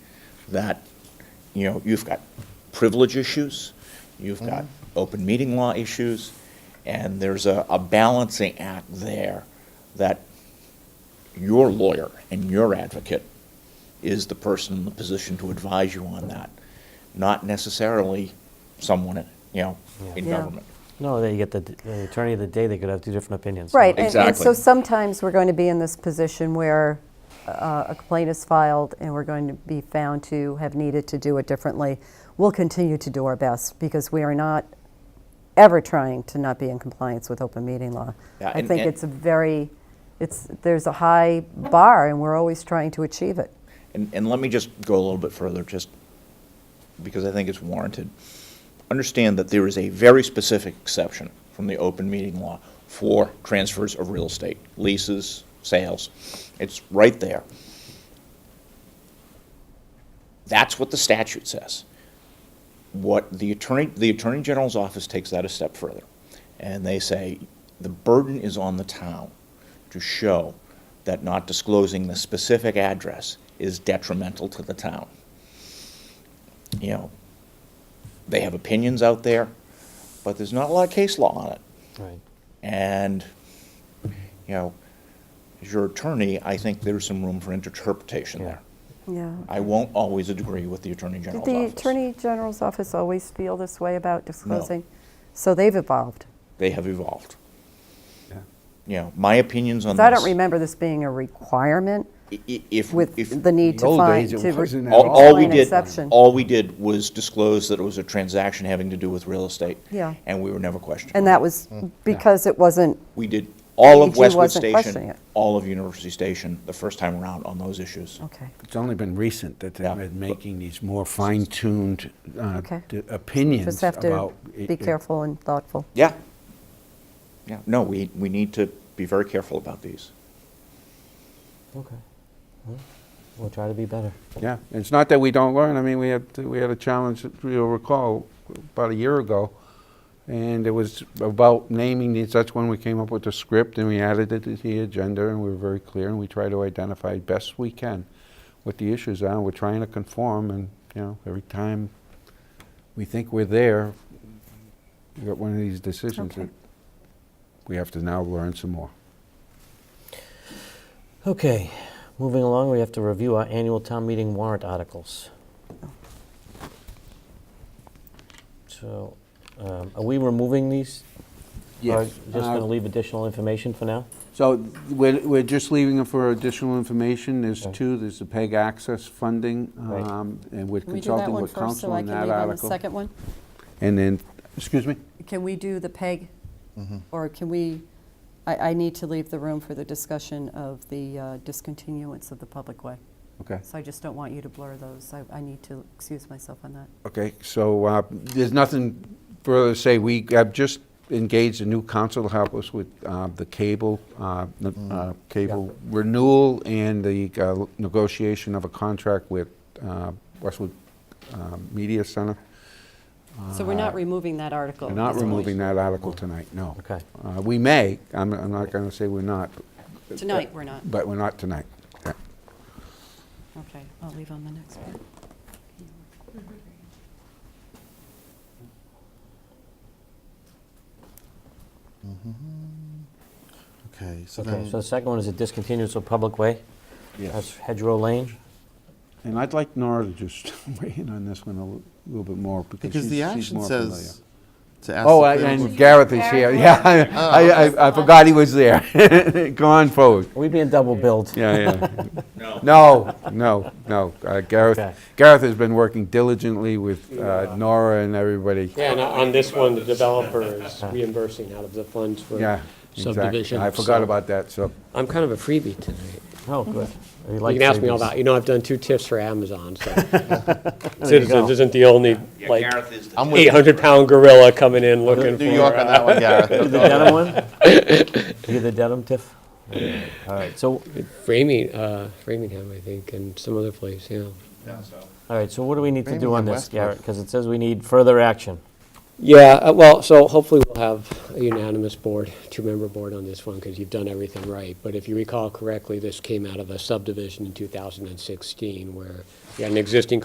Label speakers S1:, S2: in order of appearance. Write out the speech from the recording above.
S1: that, you know, you've got privilege issues, you've got open meeting law issues, and there's a, a balancing act there that your lawyer and your advocate is the person in the position to advise you on that, not necessarily someone, in, you know, in
S2: Yeah.
S1: government.
S3: No, they get the d- the attorney of the day, they could have two different opinions.
S2: Right, and- and so
S1: Exactly.
S2: sometimes we're going to be in this position where uh, a complaint is filed and we're going to be found to have needed to do it differently. We'll continue to do our best because we are not ever trying to not be in compliance with open meeting law.
S1: Yeah,
S2: I
S1: and-
S2: think
S1: and-
S2: it's a very, it's, there's a high bar and we're always trying to achieve it.
S1: And, and let me just go a little bit further, just because I think it's warranted. Understand that there is a very specific exception from the open meeting law for transfers of real estate, leases, sales. It's right there. That's what the statute says. What the attorney, the Attorney General's office takes that a step further, and they say, the burden is on the town to show that not disclosing the specific address is detrimental to the town. You know, they have opinions out there, but there's not a lot of case law on it.
S3: Right.
S1: And, you know, as your attorney, I think there's some room for interpretation there.
S2: Yeah.
S1: I won't always agree with the Attorney
S2: Did
S1: General's
S2: the
S1: office.
S2: Attorney General's office always feel this way about disclosing? So they've evolved.
S1: They have evolved. You know, my opinions on
S2: 'Cause
S1: this.
S2: I don't remember this being a requirement.
S1: i- i- If, if.
S2: with the need to
S4: old
S2: find,
S4: days, it
S2: to re-
S4: wasn't at
S1: All,
S4: all.
S1: all we
S2: An
S1: did,
S2: exception.
S1: all we did was disclose that it was a transaction having to do with real estate.
S2: Yeah.
S1: And we were never questioned.
S2: and
S1: on it.
S2: that was
S4: Mm.
S2: because it wasn't,
S1: We did all of
S2: EG
S1: Westwood
S2: wasn't questioning
S1: Station,
S2: it.
S1: all of University Station, the first time around on those issues.
S2: okay,
S4: It's only been recent that
S1: Yeah.
S4: they've been making these more fine-tuned uh,
S2: Okay.
S4: d- opinions
S2: just have to
S4: about i-
S2: be
S4: i-
S2: careful and thoughtful.
S1: Yeah. Yeah, no, we, we need to be very careful about these.
S3: Okay. Well, We'll try to be better.
S4: Yeah, it's not that we don't learn, I mean, we had, we had a challenge, if you'll recall, about a year ago, and it was about naming these, that's when we came up with the script, and we added it to the agenda, and we were very clear, and we try to identify best we can what the issues are, we're trying to conform, and, you know, every time we think we're there, we got one of these decisions
S2: Okay.
S4: that we have to now learn some more.
S3: Okay, moving along, we have to review our annual town meeting warrant articles. So, um, are we removing these? Or just going to leave additional information for now?
S4: So th- we're, we're just leaving it for additional information. There's
S3: Okay.
S4: two, there's the PEG access funding,
S3: Right.
S4: um, and we're
S5: Can we do that
S4: consulting
S5: one
S4: with
S5: first, so
S4: council
S5: I
S4: on
S5: can
S4: that
S5: leave on the
S4: article.
S5: second one?
S4: And then, excuse me?
S5: Can we do the PEG?
S4: Mm-hmm.
S5: Or can we, I, I need to leave the room for the discussion of the uh, discontinuance of the public way.
S4: Okay.
S5: So I just don't want you to blur those. I, I need to excuse myself on that.
S4: Okay, so uh, there's nothing further to say. We have just engaged a new council to help us with uh, the cable, uh, n-
S3: Mm.
S4: uh, cable renewal and the uh, negotiation of a contract with uh, Westwood uh, Media Center.
S5: So we're not removing that article.
S4: We're
S5: at
S4: not
S5: this point.
S4: removing that article tonight, no.
S3: Okay.
S4: Uh, We may, I'm, I'm not going to say we're not,
S5: Tonight, we're not.
S4: but we're not tonight. Yeah.
S5: Okay, I'll leave on the next one.
S6: Okay, so
S3: Okay,
S6: then,
S3: so the second one is a discontinuance of public way. That's Hedgerow Lane.
S4: And I'd like Nora to just weigh in on this one a li- little bit more because
S6: because
S4: she's
S6: the
S4: she's
S6: action
S4: more familiar.
S6: says to Oh, ask.
S4: Oh,
S6: the
S4: I-
S6: planning
S4: and
S6: board-
S4: Gareth is here, yeah, I, I- I forgot he was there. Go on forward.
S3: Are we being double billed?
S4: Yeah, yeah.
S1: No.
S4: No, no, no, Uh,
S3: Okay.
S4: Gareth, Gareth has been working diligently with uh, Nora and everybody.
S7: Yeah, and on this one, the developer is reimbursing out of the funds for
S4: Yeah, exactly.
S7: subdivision.
S4: I forgot
S7: so-
S4: about that, so.
S7: I'm kind of a freebie tonight.
S3: Oh, good. You
S7: Mm-hmm. You
S3: like
S7: can ask me all
S3: savings.
S7: about, you know, I've done two tips for Amazon, so. Citizens isn't the only, like,
S1: is
S6: I'm with you.
S7: 800-pound gorilla coming in looking for.
S6: New York on
S7: uh,
S6: that one, Gareth.
S3: You the denim one? You the denim tiff? All right, so,
S7: Framing, uh, Framingham, I think, and some other place, yeah.
S3: all right, so what do we need to do on
S6: Framingham,
S3: this,
S6: Westwood.
S3: Garrett? Because it says we need further action.
S7: Yeah, uh, well, so hopefully we'll have a unanimous board, two-member board on this one, because you've done everything right. But if you recall correctly, this came out of a subdivision in 2016, where you had an existing